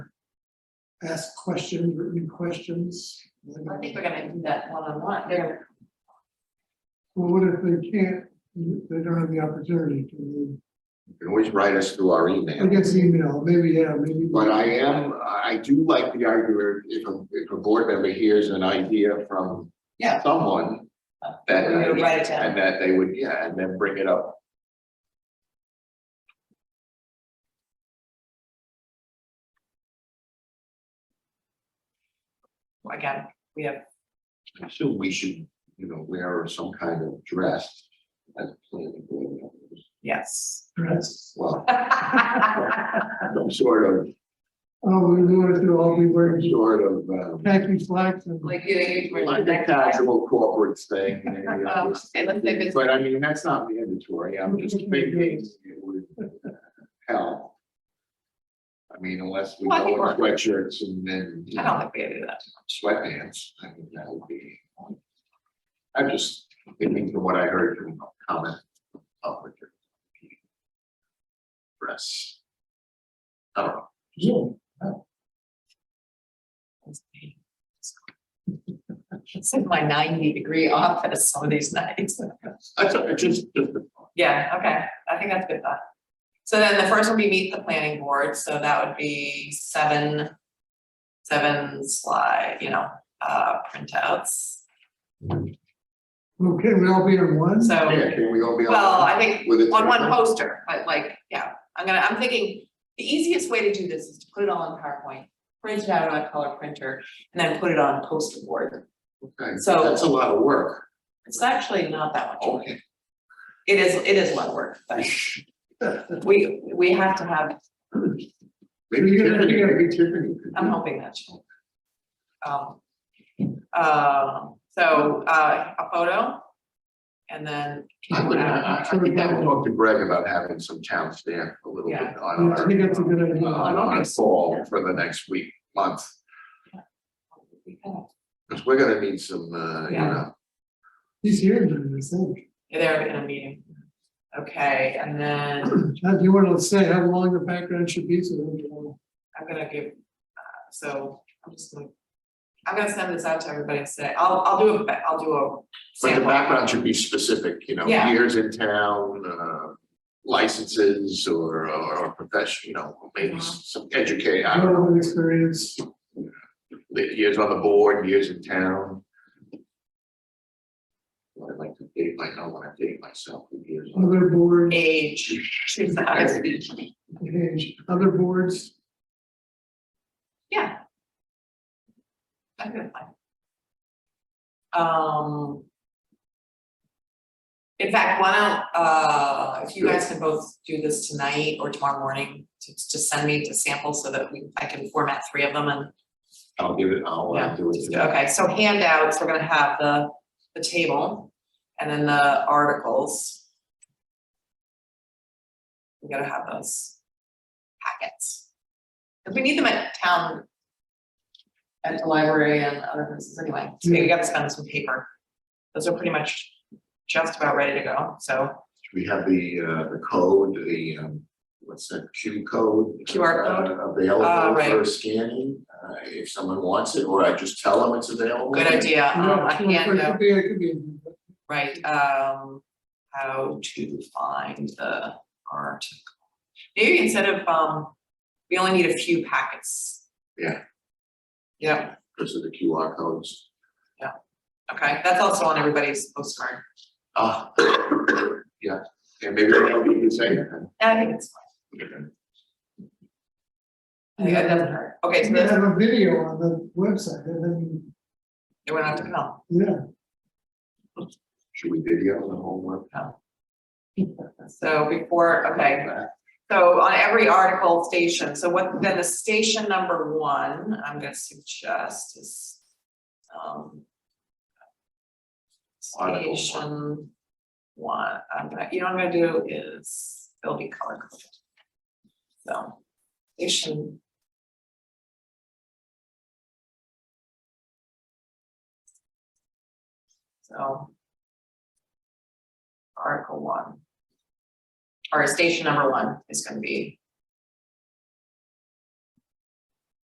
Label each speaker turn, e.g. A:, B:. A: ask questions, written questions.
B: I think we're gonna do that one-on-one, they're,
A: Well, what if they can't, they don't have the opportunity to,
C: You can always write us through our
A: I
C: email.
A: guess email, maybe, yeah, maybe.
C: But I am, I do like the argument, if a, if a board member hears an idea from
B: Yeah.
C: someone that, uh,
B: We would write it down.
C: and that they would, yeah, and then bring it up.
B: again, we have,
C: I assume we should, you know, wear some kind of dress as planning board members.
B: yes.
A: Dress.
C: Well,
B: Well,
C: some sort of,
A: Oh, we want to all be
C: some
A: wearing
C: sort of, um,
A: khaki slacks and.
B: Like you, you.
C: like a casual corporate thing. you know,
B: Oh, okay, let's say business.
C: But I mean, that's not mandatory, I'm just thinking it would uh, help. I mean, unless we
B: Well, I
C: go
B: think
C: in sweatshirts and then, you
B: I don't
C: know,
B: think we gotta do that.
C: sweatpants, I mean, that would be. I'm just thinking from what I heard from comment. public Press. I don't know,
A: Zoom.
B: It's in my ninety degree office some of these nights.
C: that's, I just, just.
B: Yeah, okay, I think that's good thought. So then the first would be meet the planning board, so that would be seven, seven slide, you know, uh, printouts.
A: Okay, we all be in one?
B: So,
C: Yeah, can we all be on?
B: well, I think
C: With it.
B: on one poster, but like, yeah, I'm gonna, I'm thinking, the easiest way to do this is to put it all in PowerPoint. Print it out on a color printer and then put it on a poster board.
C: Okay,
B: so-
C: That's a lot of work,
B: It's actually not that much.
C: okay.
B: It is, it is one word, but we, we have to have,
C: Maybe
A: You're gonna-
C: Tiffany,
A: you're
C: maybe Tiffany. could
B: I'm
C: do-
B: hoping that she'll. Um, um, so, uh, a photo. And then.
C: I would, I, I think I would talk to Greg about having some town stamp a little bit
B: Yeah.
C: on
A: I
C: our. uh,
A: think that's a good idea.
C: On our fall for the next week, month,
B: oh,
C: because we're gonna need some, uh, you
B: Yeah.
C: know,
A: He's here, I think.
B: Yeah, They're in a meeting. Okay, and then
A: Now, do you want to say how long the background should be so that we know?
B: I'm gonna give, uh, so I'm just gonna. I'm gonna send this out to everybody and say, I'll, I'll do a, ba- I'll do a.
C: but the
B: sample.
C: background should be specific, you know,
B: Yeah.
C: years in town, uh. Licenses or, or profession, you know, maybe
B: Uh-huh.
C: s- some educate, I don't know,
A: Relevant experience,
C: li- years on the board, years in town. I'd like to date, my- I know when I date myself, with years on.
A: other board,
B: Age, choose the highest age.
A: age, other boards,
B: Yeah. I think that's fine. Um. In fact, why don't, uh, if you guys can both do this tonight or tomorrow morning, to just send me to samples so that we, I can format three of them and
C: I'll give it, I'll uh,
B: Yeah.
C: do it. today.
B: Okay, so handouts, we're gonna have the, the table and then the articles. We gotta have those packets. If we need them at town, at the library and other places anyway, so we gotta spend some paper. Those are pretty much just about ready to go, so
C: We have the, uh, the code, the, um, what's that, Q code?
B: QR code?
C: uh,
B: Ah,
C: Available
B: right.
C: for scanning, uh, if someone wants it, or I just tell them it's available.
B: good idea, um,
A: Yeah,
B: a
A: sure, it
B: handout.
A: could be- it could be-
B: Right, um, how to find the article. Maybe instead of, um, we only need a few packets.
C: Yeah.
B: Yep,
C: Because of the QR codes.
B: okay, that's also on everybody's postcard.
C: Ah, yeah, and maybe that'll be the same.
B: I think it's fine. Yeah, it doesn't hurt. Okay, so
A: We
B: this,
A: have a video on the website, and then,
B: you won't have to come.
A: yeah,
C: Should we video the whole one?
B: So before, okay, so on every article station, so what, then the station number one, I'm gonna suggest is, um.
C: Article one.
B: Station one, I'm gonna, you know, what I'm gonna do is, it'll be color coded. So, station. So. Article one. Or station number one is gonna be